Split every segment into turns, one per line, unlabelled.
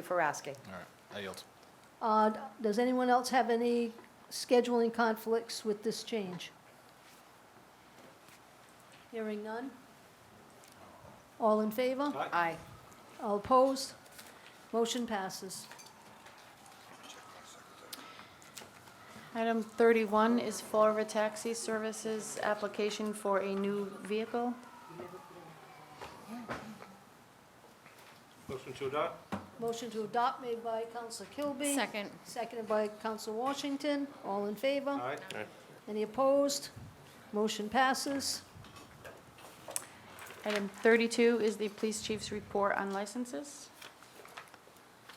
you for asking.
All right, I yield.
Uh, Does anyone else have any scheduling conflicts with this change? Hearing none? All in favor?
Aye.
All opposed? Motion passes.
Item 31 is Florida Taxi Services, application for a new vehicle.
Motion to adopt?
Motion to adopt made by Counsel Kilby. Seconded by Counsel Washington. All in favor?
Aye.
Any opposed? Motion passes.
Item 32 is the police chief's report on licenses.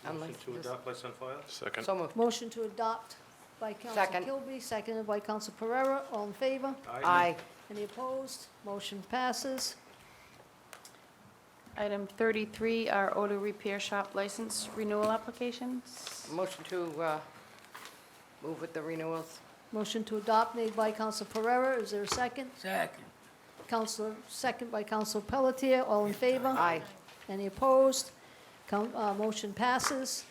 Motion to adopt, place on file?
Second.
So moved.
Motion to adopt by Counsel
Second.
Kilby, seconded by Counsel Pereira. All in favor?
Aye.
Any opposed? Motion passes.
Item 33 are auto repair shop license renewal applications.
Motion to uh, move with the renewals.
Motion to adopt made by Counsel Pereira. Is there a second? Second. Counsel, second by Counsel Pelletier. All in favor?
Aye.
Any opposed? Coun- uh, Motion passes.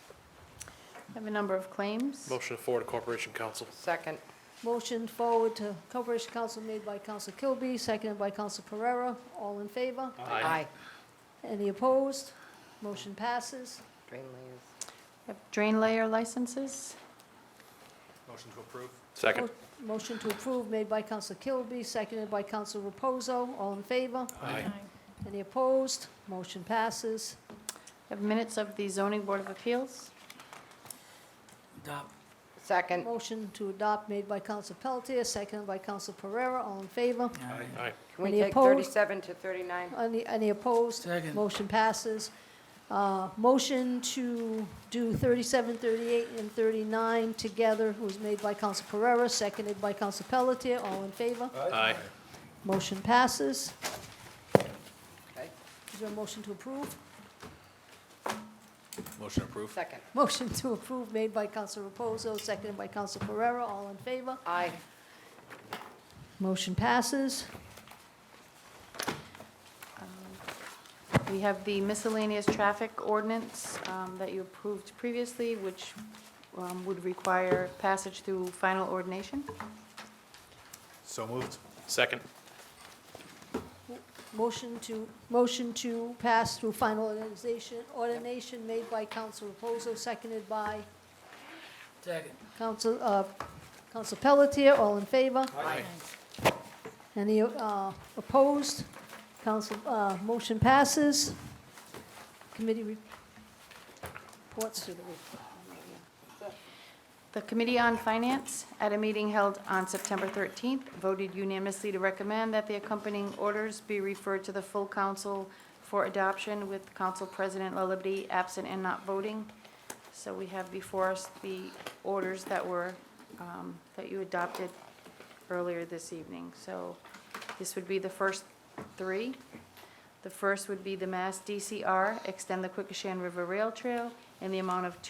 I Have a number of claims.
Motion to forward to Corporation Council.
Second.
Motion forward to Corporation Council made by Counsel Kilby, seconded by Counsel Pereira. All in favor?
Aye.
Any opposed? Motion passes.
Drain layers.
I Have drain layer licenses.
Motion to approve?
Second.
Mo- Motion to approve made by Counsel Kilby, seconded by Counsel Reposo. All in favor?
Aye.
Any opposed? Motion passes.
I Have minutes of the zoning board of appeals.
Second.
Motion to adopt made by Counsel Pelletier, seconded by Counsel Pereira. All in favor?
Aye.
Can we
Any
take
opposed?
37 to 39?
Any, any opposed? Second. Motion passes. Uh, Motion to do 37, 38, and 39 together was made by Counsel Pereira, seconded by Counsel Pelletier. All in favor?
Aye.
Motion passes.
Okay.
Is there a motion to approve?
Motion approved?
Second.
Motion to approve made by Counsel Reposo, seconded by Counsel Pereira. All in favor?
Aye.
Motion passes.
We have the miscellaneous traffic ordinance um, that you approved previously, which um, would require passage through final ordination.
So moved?
Second.
Motion to, motion to pass through final organization, ordination made by Counsel Reposo, seconded by? Second. Counsel, uh, Counsel Pelletier, all in favor?
Aye.
Any, uh, opposed? Counsel, uh, motion passes. Committee re- reports to the,
The Committee on Finance, at a meeting held on September 13th, voted unanimously to recommend that the accompanying orders be referred to the full council for adoption with Council President Lillaby absent and not voting. So we have before us the orders that were, um, that you adopted earlier this evening. So this would be the first three. The first would be the Mass DCR, extend the Quikasham River Rail Trail in the amount of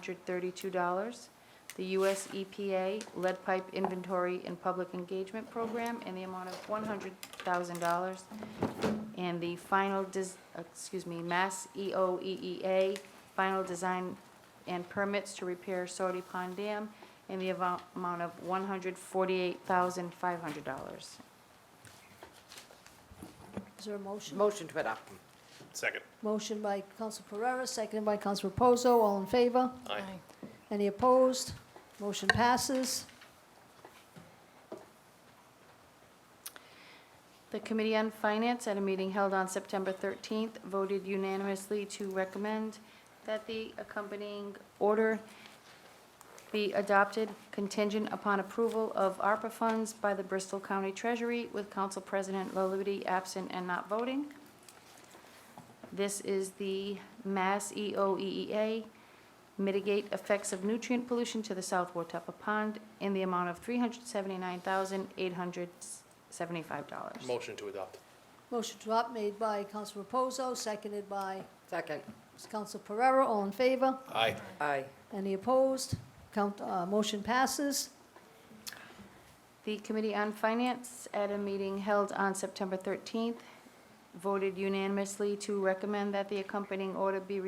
$268,132. The US EPA Lead Pipe Inventory and Public Engagement Program in the amount of $100,000. And the final, des- excuse me, Mass E EOEEA, final design and permits to repair Sody Pond Dam in the avo- amount of $148,500.
is there a motion?
Motion to adopt.
Second.
Motion by Counsel Pereira, seconded by Counsel Reposo, all in favor?
Aye.
Any opposed? Motion passes.
The Committee on Finance, at a meeting held on September 13th, voted unanimously to recommend that the accompanying order be adopted contingent upon approval of ARPA funds by the Bristol County Treasury with Council President Laludi absent and not voting. This is the Mass E EOEEA mitigate effects of nutrient pollution to the South Watapa Pond in the amount of $379,875.
Motion to adopt.
Motion to adopt made by Counsel Reposo, seconded by
Second.
Counsel Pereira. All in favor?
Aye.
Aye.
Any opposed? Count, uh, motion passes.
The Committee on Finance, at a meeting held on September 13th, voted unanimously to recommend that the accompanying order be